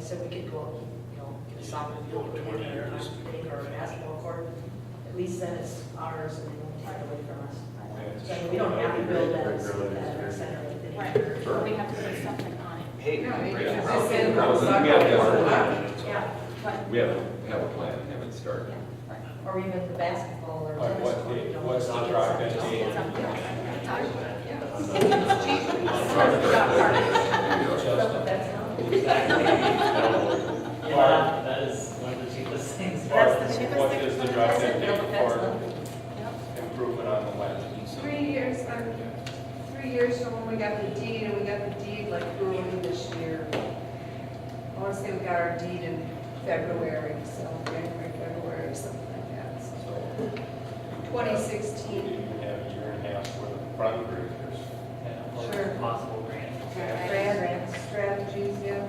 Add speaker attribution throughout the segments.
Speaker 1: said, we could go, out, you know, get a soccer field or
Speaker 2: Twenty
Speaker 1: whatever,
Speaker 2: years.
Speaker 1: or a basketball court. At least then it's ours and they won't take it away from us. So I mean, we don't have to build that, that rec center or anything.
Speaker 3: Right, but we have to put something on it.
Speaker 4: Hey,
Speaker 5: No,
Speaker 4: great.
Speaker 5: you
Speaker 6: Right.
Speaker 5: just
Speaker 6: Route-
Speaker 5: said-
Speaker 6: routes, we have to have a plan.
Speaker 1: Yeah,
Speaker 3: But,
Speaker 6: We have, we have a plan, we haven't started.
Speaker 3: yeah, right.
Speaker 1: or even the basketball or tennis.
Speaker 2: what
Speaker 1: court, you
Speaker 2: date-
Speaker 1: know,
Speaker 2: what's the
Speaker 1: just get
Speaker 2: drive that
Speaker 1: something
Speaker 2: date?
Speaker 1: else.
Speaker 3: Something else.
Speaker 5: It's cheap.
Speaker 1: So that's not-
Speaker 7: Yeah, that is one of the cheapest things.
Speaker 1: That's the cheapest
Speaker 2: What
Speaker 1: thing.
Speaker 2: is the drive that
Speaker 1: That's it,
Speaker 2: date
Speaker 1: that's
Speaker 2: for
Speaker 1: it.
Speaker 2: improvement on the land?
Speaker 5: Three years, um, three years from when we got the deed, and we got the deed like early this year. I want to say we got our deed in February, so January, February, or something like that, so. Twenty
Speaker 2: You
Speaker 5: sixteen.
Speaker 2: even have a year and a half worth of front breakers.
Speaker 7: Yeah, well,
Speaker 5: Sure.
Speaker 7: Possible grant.
Speaker 5: Grand strategies, yeah.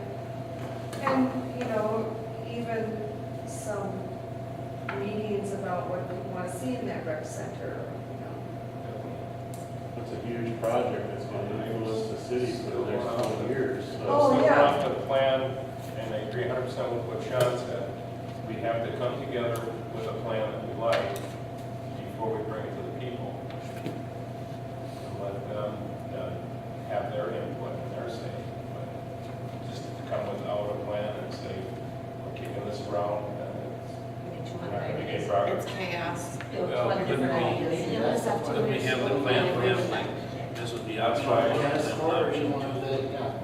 Speaker 5: And, you know, even some meetings about what we want to see in that rec center, you know.
Speaker 8: That's a huge project, that's gonna influence the city for the next twenty years, so.
Speaker 5: Oh,
Speaker 2: Something
Speaker 5: yeah.
Speaker 2: off the plan, and I agree hundred percent with what Sean said. We have to come together with a plan that we like before we bring it to the people. And let them uh, have their input and their say. But Just to come without a plan and say, we're kicking this around, and
Speaker 1: Maybe
Speaker 2: it's
Speaker 1: two
Speaker 2: we're
Speaker 1: hundred
Speaker 2: not gonna
Speaker 1: ideas.
Speaker 2: get progress.
Speaker 5: It's chaos.
Speaker 1: You know, two hundred different ideas.
Speaker 3: Yeah, that's up to
Speaker 9: Let me
Speaker 3: us.
Speaker 9: have the plan, we have like, this would be option one,
Speaker 2: That's
Speaker 9: then option two.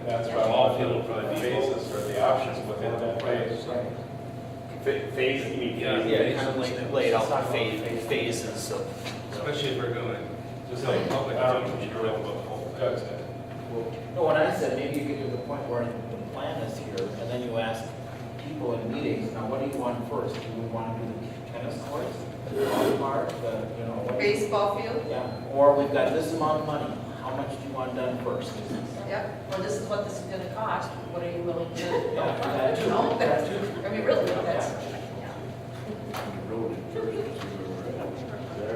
Speaker 2: That's why I want the basis or the options within that phase. E.
Speaker 4: Ph- Phase, you mean,
Speaker 9: Yeah,
Speaker 4: yeah, kind of
Speaker 9: phases.
Speaker 4: like laid out the phase, phases of.
Speaker 9: Especially if we're going,
Speaker 2: Just
Speaker 9: just
Speaker 2: like
Speaker 9: like public,
Speaker 2: our-
Speaker 9: you don't have a whole.
Speaker 2: Doug said.
Speaker 4: No, what I said, maybe you could do the point where the plan is here, and then you ask people in meetings, now what do you want first? Do you want to do the tennis courts, the dog park, the, you know? what-
Speaker 5: Baseball field,
Speaker 4: Yeah, or we've got this amount of money, how much do you want done first?
Speaker 5: yep.
Speaker 1: Well, this is what this is gonna cost, what are you willing to, you
Speaker 4: Yeah, that too,
Speaker 1: know,
Speaker 4: that
Speaker 1: that's,
Speaker 4: too.
Speaker 1: I mean, really, that's, yeah.
Speaker 8: Road in first, see where we're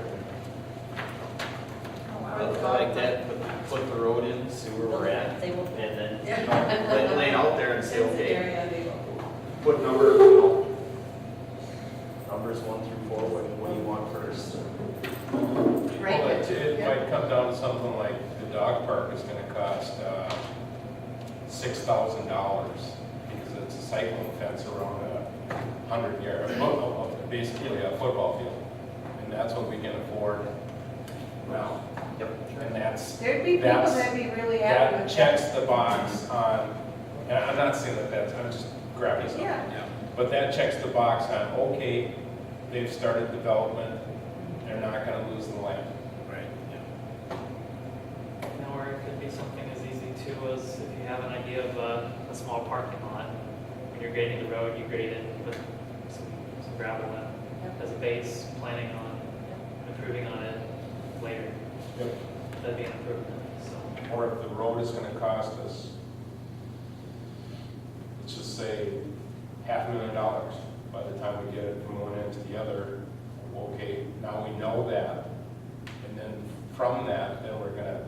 Speaker 8: at. Exactly.
Speaker 4: I Like that, put- put the road in, see where we're at,
Speaker 1: They will.
Speaker 4: and then you
Speaker 1: Yeah.
Speaker 4: know, lay, lay it out there and say,
Speaker 1: That's the
Speaker 4: okay,
Speaker 1: area they will.
Speaker 4: what number, you know, numbers one through four, what, what do you want first?
Speaker 5: Right.
Speaker 2: Well, it- It
Speaker 5: Yeah.
Speaker 2: might come down to something like the dog park is gonna cost, uh, six thousand dollars because it's a cycling fence around a hundred yard, a football, basically a football field. And that's what we can afford. Well,
Speaker 4: Yep.
Speaker 2: and that's,
Speaker 5: There'd be people
Speaker 2: That's-
Speaker 5: that'd be really happy
Speaker 2: that
Speaker 5: with that.
Speaker 2: checks the box on, and I'm not saying that that's, I'm just grabbing something.
Speaker 5: Yeah,
Speaker 9: Yeah.
Speaker 2: But that checks the box on, okay, they've started development, they're not gonna lose the land.
Speaker 9: Right, yeah.
Speaker 7: Or it could be something as easy too as if you have an idea of a, a small parking lot. When you're grading the road, you grade it with some, some gravel in, as a base, planning on improving on it later.
Speaker 2: Yep.
Speaker 7: That'd be an improvement, so.
Speaker 2: Or if the road is gonna cost us, let's just say, half a million dollars by the time we get it from one end to the other. Okay, now we know that, and then from that, then we're gonna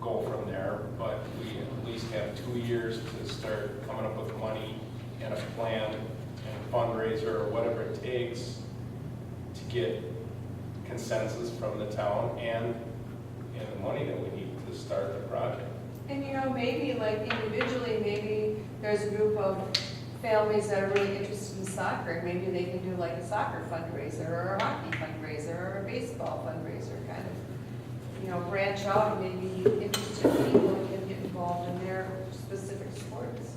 Speaker 2: go from there. But we at least have two years to start coming up with money and a plan and a fundraiser or whatever it takes to get consensus from the town and, and the money that we need to start the project.
Speaker 5: and you know, maybe like individually, maybe there's a group of families that are really interested in soccer, and maybe they can do like a soccer fundraiser, or a hockey fundraiser, or a baseball fundraiser, kind of, you know, branch out, and maybe interested people can get involved in their specific sports.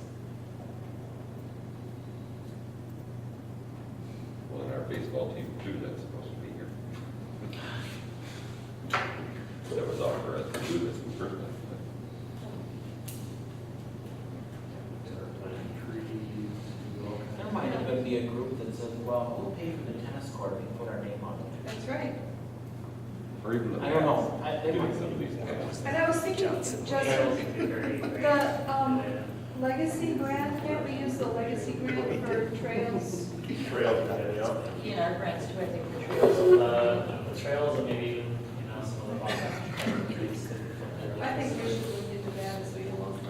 Speaker 6: Well, and our baseball team too, that's supposed to be here. That was offered us to do this in person.
Speaker 4: There might even be a group that says, well, we'll pay for the tennis court and put our name on it.
Speaker 5: That's right.
Speaker 6: Or even the.
Speaker 4: I don't know. I- they
Speaker 6: Doing
Speaker 4: might-
Speaker 6: some of these.
Speaker 5: And I was thinking, Justin, the, um, legacy grant, can't we use the legacy grant for trails?
Speaker 8: Trail, yeah.
Speaker 1: He and our friends too, I think, the trails.
Speaker 7: Uh, the trails and maybe, even, you know, some of the.
Speaker 5: I think we should